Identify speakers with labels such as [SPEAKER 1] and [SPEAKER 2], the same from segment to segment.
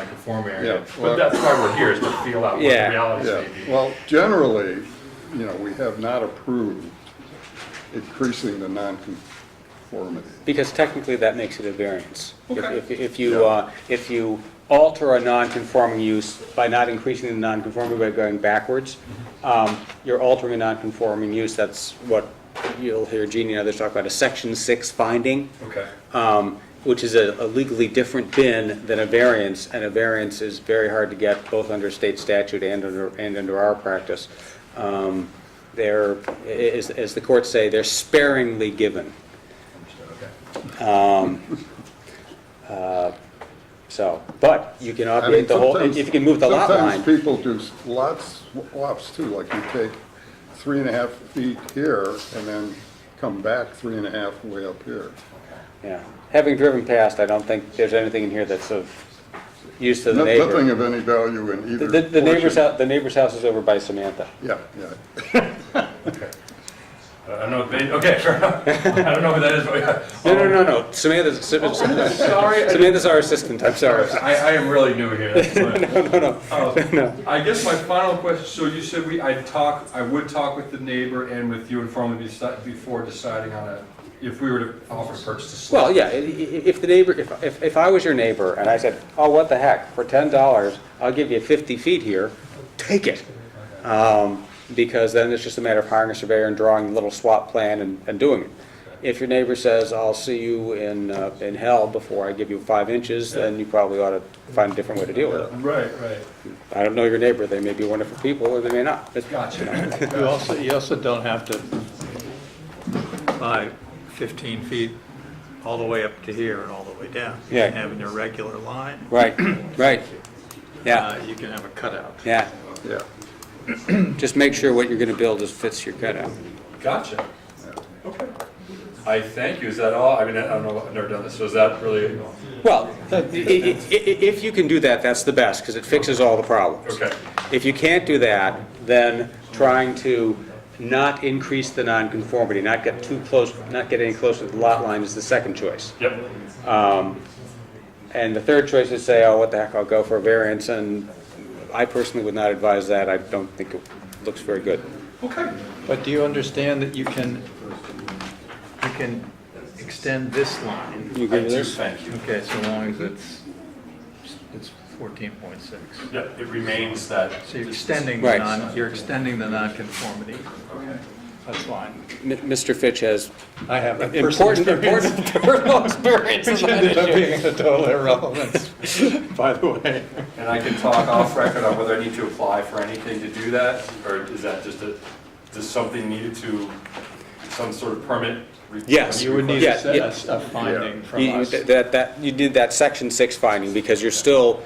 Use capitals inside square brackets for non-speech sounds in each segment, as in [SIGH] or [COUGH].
[SPEAKER 1] non-conforming
[SPEAKER 2] Yeah,
[SPEAKER 1] area.
[SPEAKER 3] But
[SPEAKER 2] well-
[SPEAKER 3] that's why we're here, is to feel out what the
[SPEAKER 4] Yeah.
[SPEAKER 3] realities
[SPEAKER 2] Yeah,
[SPEAKER 3] may be.
[SPEAKER 2] well, generally, you know, we have not approved increasing the nonconformity.
[SPEAKER 4] Because technically, that makes it a variance. If-
[SPEAKER 3] Okay.
[SPEAKER 4] If if you, uh, if you alter a non-conforming use by not increasing the non-conformity by going backwards, um, you're altering a non-conforming use, that's what you'll hear Jeannie and others talk about, a section six finding,
[SPEAKER 3] Okay.
[SPEAKER 2] uh,
[SPEAKER 4] um, which is a a legally different bin than a variance, and a variance is very hard to get, both under state statute and under, and under our practice. Um, They're, a- a- as as the courts say, they're sparingly given.
[SPEAKER 3] Understood, okay.
[SPEAKER 4] So, but you can
[SPEAKER 2] I mean,
[SPEAKER 4] obviate the whole, if
[SPEAKER 2] sometimes-
[SPEAKER 4] you can move the lot line.
[SPEAKER 2] Sometimes people do s- lots, lots too, like you take three and a half feet here and then come back three and a half way up here.
[SPEAKER 4] Yeah. Having driven past, I don't think there's anything in here that's of use to
[SPEAKER 2] No-
[SPEAKER 4] the
[SPEAKER 2] Nothing
[SPEAKER 4] neighbor.
[SPEAKER 2] of any value in either
[SPEAKER 4] The- The neighbor's,
[SPEAKER 2] portion.
[SPEAKER 4] hou- the neighbor's house is over by Samantha.
[SPEAKER 2] Yeah, yeah.
[SPEAKER 3] I don't know, if they- okay, [LAUGHS] fair enough. I don't know who that is, but.
[SPEAKER 4] No, no, no, no, Samantha's,
[SPEAKER 2] Oh,
[SPEAKER 4] Samantha's
[SPEAKER 3] Sorry, I-
[SPEAKER 4] Samantha's our assistant, I'm sorry.
[SPEAKER 3] I, I am really new here.
[SPEAKER 4] [LAUGHS]
[SPEAKER 3] that's why.
[SPEAKER 4] No, [LAUGHS] no,
[SPEAKER 3] Uh, I guess my final question, so you said we, I'd talk, I would talk with the neighbor and with you informally deci- before deciding on a, if we were to offer purchase a slip.
[SPEAKER 4] Well, yeah, i- i- if the neighbor, if, if, if I was your neighbor and I said, oh, what the heck, for ten dollars, I'll give you fifty feet here, take it. Um, because then it's just a matter of hiring a surveyor and drawing a little swap plan and, and doing it. If your neighbor says, I'll see you in, uh, in hell before I give you five inches, then you probably ought to find a different way to deal with it.
[SPEAKER 3] Right, right.
[SPEAKER 4] I don't know your neighbor, they may be wonderful people or they may not. It's-
[SPEAKER 3] Gotcha.
[SPEAKER 5] You also, you also don't have to buy 15 feet all the way up to here and all the way down. You
[SPEAKER 4] Yeah.
[SPEAKER 5] can have an irregular line.
[SPEAKER 4] Right, right, yeah,
[SPEAKER 5] Uh, You can have a cutout.
[SPEAKER 4] yeah,
[SPEAKER 2] Yeah,
[SPEAKER 4] just make sure what you're gonna build is fits your cutout.
[SPEAKER 3] Gotcha. Okay. I thank you. Is that all? I mean, I don't know, I've never done this, so is that really?
[SPEAKER 4] Well, i- i- i- if you can do that, that's the best, because it fixes all the problems.
[SPEAKER 3] Okay.
[SPEAKER 4] If you can't do that, then trying to not increase the nonconformity, not get too close, not get any closer to the lot line is the second choice.
[SPEAKER 3] Yep.
[SPEAKER 4] And the third choice is say, oh, what the heck, I'll go for a variance, and I personally would not advise that. I don't think it looks very good.
[SPEAKER 3] Okay.
[SPEAKER 5] But do you understand that you can, you can extend this line?
[SPEAKER 4] You agree with
[SPEAKER 3] I do
[SPEAKER 4] this?
[SPEAKER 3] thank you.
[SPEAKER 5] Okay, so long as it's, it's 14.6.
[SPEAKER 3] Yep, it remains that.
[SPEAKER 5] So you're extending the
[SPEAKER 4] Right.
[SPEAKER 5] non, you're extending the nonconformity.
[SPEAKER 3] Okay.
[SPEAKER 5] That's fine.
[SPEAKER 4] M- Mr. Fitch has
[SPEAKER 5] I have that personal
[SPEAKER 4] important,
[SPEAKER 5] experience.
[SPEAKER 4] important [LAUGHS] personal experience in [LAUGHS]
[SPEAKER 5] Which
[SPEAKER 4] that
[SPEAKER 5] ended up
[SPEAKER 4] issue.
[SPEAKER 5] being a total irrelevance, [LAUGHS] by the way.
[SPEAKER 3] And I can talk off record on whether I need to apply for anything to do that, or is that just a, does something needed to, some sort of permit? re-
[SPEAKER 4] Yes.
[SPEAKER 5] You would need
[SPEAKER 4] Yeah,
[SPEAKER 5] a set-
[SPEAKER 4] yeah.
[SPEAKER 5] a s- a finding from
[SPEAKER 4] You- you-
[SPEAKER 5] us.
[SPEAKER 4] That, that, you did that section six finding because you're still,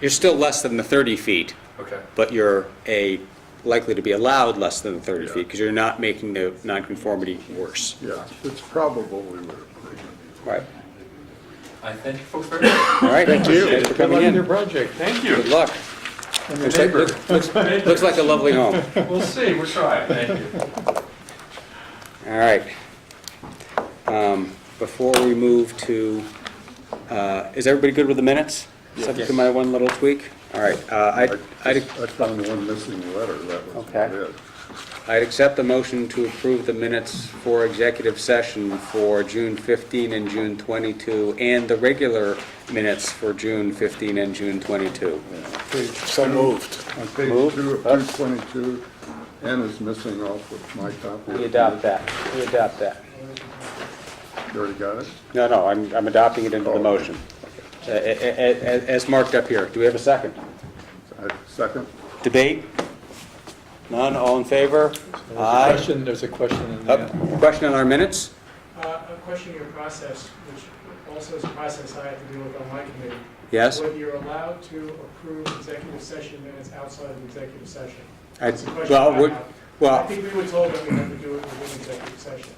[SPEAKER 4] you're still less than the 30 feet,
[SPEAKER 3] Okay,
[SPEAKER 4] but you're a, likely to be allowed less than the 30 feet because you're not making the nonconformity worse.
[SPEAKER 2] yeah, it's probably would approve.
[SPEAKER 4] Right.
[SPEAKER 3] I thank you folks very much.
[SPEAKER 4] All right. Thank you. Thanks for
[SPEAKER 5] Good
[SPEAKER 4] coming
[SPEAKER 5] luck in your
[SPEAKER 4] in.
[SPEAKER 5] project.
[SPEAKER 3] Thank
[SPEAKER 4] Good
[SPEAKER 3] you.
[SPEAKER 4] luck.
[SPEAKER 5] And your
[SPEAKER 4] Looks like-
[SPEAKER 5] neighbor.
[SPEAKER 4] looks- Looks like a lovely home.
[SPEAKER 3] We'll see, we're trying, thank you.
[SPEAKER 4] All right. Um, Before we move to, uh, is everybody good with the minutes? Subject to my one little tweak? All right. uh,
[SPEAKER 2] I
[SPEAKER 4] I'd, I'd
[SPEAKER 2] I found one missing letter, that was
[SPEAKER 4] Okay.
[SPEAKER 2] it.
[SPEAKER 4] I'd accept the motion to approve the minutes for executive session for June 15 and June 22, and the regular minutes for June 15 and June 22.
[SPEAKER 2] So moved. On page
[SPEAKER 4] Moved.
[SPEAKER 2] two of two twenty-two, N is missing off of my copy.
[SPEAKER 4] We adopt that, we adopt that.
[SPEAKER 2] You already got it?
[SPEAKER 4] No, no, I'm, I'm adopting it into the motion, Oh. A- a- a- a- as marked up here. Do we have a second?
[SPEAKER 2] I- Second?
[SPEAKER 4] Debate? None, all in favor?
[SPEAKER 5] There's a
[SPEAKER 4] Aye.
[SPEAKER 5] question, there's a question in
[SPEAKER 4] Up.
[SPEAKER 5] there.
[SPEAKER 4] Question on our minutes?
[SPEAKER 6] Uh, A question in your process, which also is a process I have to deal with on my committee.
[SPEAKER 4] Yes?
[SPEAKER 6] Whether you're allowed to approve executive session minutes outside of executive session.
[SPEAKER 4] I-
[SPEAKER 6] That's the question
[SPEAKER 4] Well,
[SPEAKER 6] I
[SPEAKER 4] we-
[SPEAKER 6] have. I
[SPEAKER 4] well,
[SPEAKER 6] think we were told that we had to do it within executive session.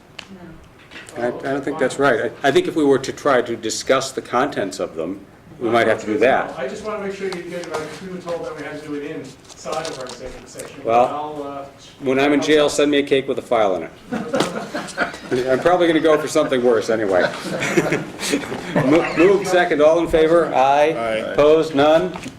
[SPEAKER 4] I I don't think that's right. I I think if we were to try to discuss the contents of them, we might have to do that.
[SPEAKER 6] I just want to make sure you get, like, we were told that we had to do it inside of our executive session.
[SPEAKER 4] Well-
[SPEAKER 6] I'll, uh,
[SPEAKER 4] When I'm in jail, send me a cake with a file in it. I'm probably gonna go for something worse anyway. [LAUGHS] Mo- Move second, all in favor? Aye. Opposed, none?